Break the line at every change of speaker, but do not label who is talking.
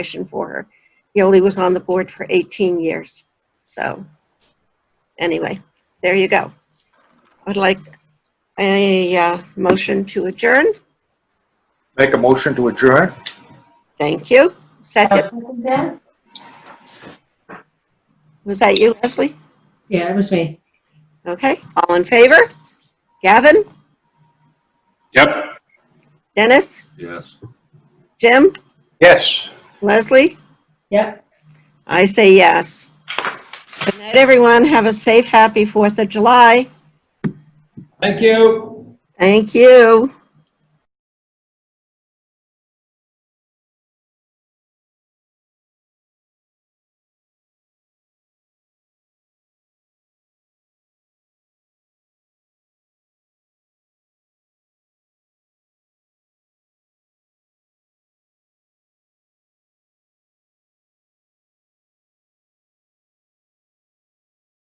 position for her. Yoli was on the board for 18 years. So, anyway, there you go. I'd like a uh, motion to adjourn.
Make a motion to adjourn?
Thank you. Second,
Second.
was that you, Leslie?
Yeah, it was me.
Okay, all in favor? Gavin,
Yep.
Dennis,
Yes.
Jim,
Yes.
Leslie?
Yep.
I say yes. Good night, everyone. Have a safe, happy Fourth of July.
Thank you.
Thank you.